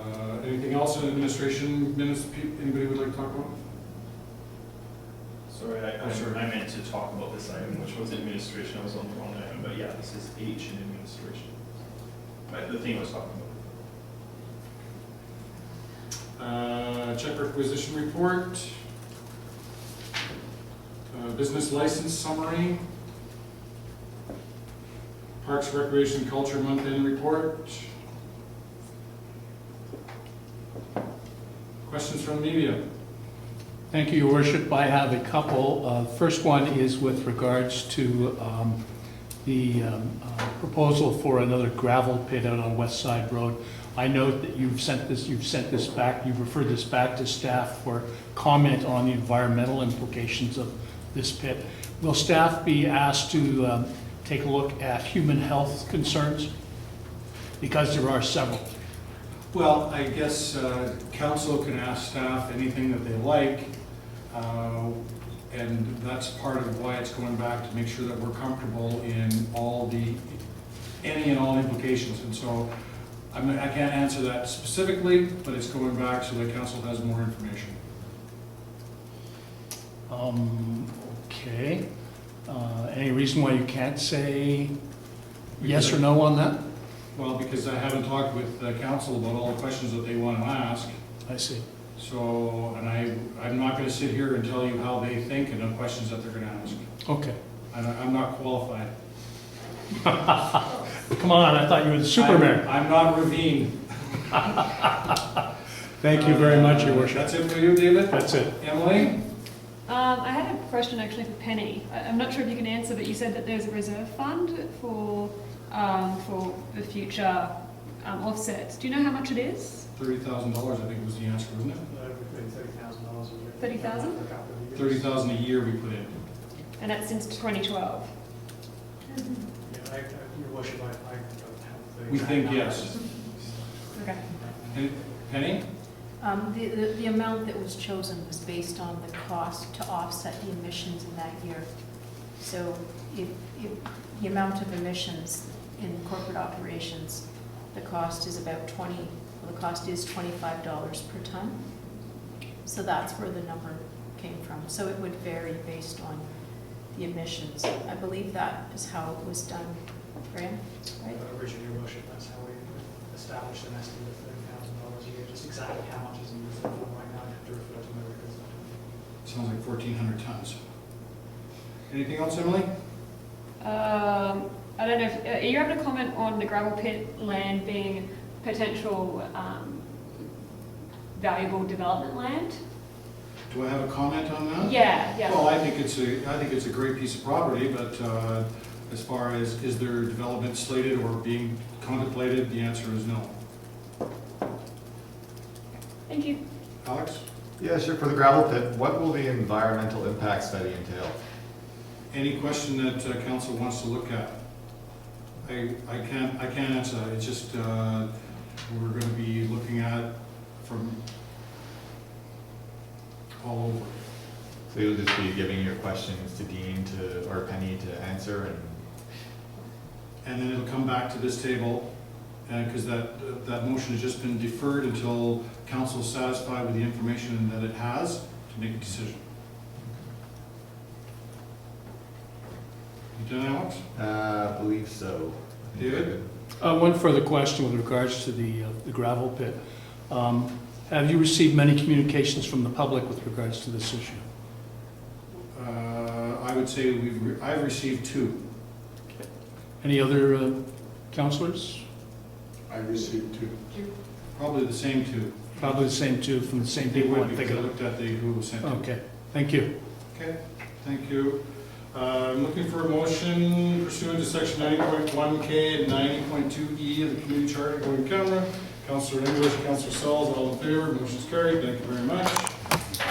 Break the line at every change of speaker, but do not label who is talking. Uh, Anything else in administration minutes, pe- anybody would like to talk about?
Sorry, I,
Oh, sure.
I meant to talk about this item, which was administration, I was on the wrong item, but yeah, this is H in administration. But the thing I was talking about.
Uh, Check requisition report. Uh, Business license summary. Parks Recreation Culture Month End Report. Questions from media?
Thank you, Your Worship. I have a couple. Uh, First one is with regards to um, the um, uh, proposal for another gravel pit out on West Side Road. I note that you've sent this, you've sent this back, you've referred this back to staff for comment on the environmental implications of this pit. Will staff be asked to um, take a look at human health concerns? Because there are several.
Well, I guess uh, council can ask staff anything that they like, uh, and that's part of why it's going back, to make sure that we're comfortable in all the, any and all implications. And so, I mean, I can't answer that specifically, but it's going back so that council has more information.
Um, okay. Uh, any reason why you can't say yes or no on that?
Well, because I haven't talked with the council about all the questions that they want to ask,
I see.
so, and I, I'm not going to sit here and tell you how they think and the questions that they're going to ask.
Okay.
I'm- I'm not qualified.
Come on, I thought you were the Superman.
I'm I'm not Ravine.
Thank you very much, Your
Uh,
Worship.
That's it for you, David?
That's it.
Emily?
Um, I had a question actually for Penny. I- I'm not sure if you can answer, but you said that there's a reserve fund for, um, for the future um, offsets. Do you know how much it is?
Thirty thousand dollars, I think was the answer, wasn't it?
Thirty thousand dollars a year.
$30,000?
For a couple of years.
Thirty thousand a year we put in.
And that's since 2012.
Yeah, I, I, your worship, I, I don't have the.
We
exact
think
numbers.
Okay.
And Penny?
Um, The, the the amount that was chosen was based on the cost to offset the emissions in that year. So if, if the amount of emissions in corporate operations, the cost is about 20, well, the cost is $25 per ton. So that's where the number came from. So it would vary based on the emissions. I believe that is how it was done, Graham,
Uh,
right?
Richard, your worship, that's how we established an estimate of thirty thousand dollars a year, just exactly how much is in the fund right now, I have to refer to my records.
Sounds like fourteen hundred tons. Anything else, Emily?
Um, I don't know, if, are you able to comment on the gravel pit land being potential um, valuable development land?
Do I have a comment on that?
Yeah, yeah.
Well, I think it's a, I think it's a great piece of property, but uh, as far as, is there development slated or being contemplated, the answer is no.
Thank you.
Alex?
Yeah, sure, for the gravel pit, what will the environmental impact study entail?
Any question that uh, council wants to look at? I, I can't, I can't answer that, it's just, uh, we're gonna be looking at from all over.
So you'll just be giving your questions to Dean to, or Penny to answer and,
And then it'll come back to this table, because that, that motion has just been deferred until council's satisfied with the information that it has to make a decision. You done, Alex?
uh, I believe so. I think we're
David?
good.
Uh, one further question with regards to the, uh, the gravel pit. Um, have you received many communications from the public with regards to this issue?
Uh, I would say we've, re- I've received two.
Any other, uh, counselors?
I received two.
Probably the same two.
Probably the same two from the same
They
people.
would,
I'm
because I
thinking of.
looked at the Google Center.
Okay, thank you.
Okay, thank you. Uh, I'm looking for a motion pursuant to section 90.1K and 90.2E E of the Community Charter, going camera. Counselor English, Counselor Sells, all in favor, motion's carried, thank you very much.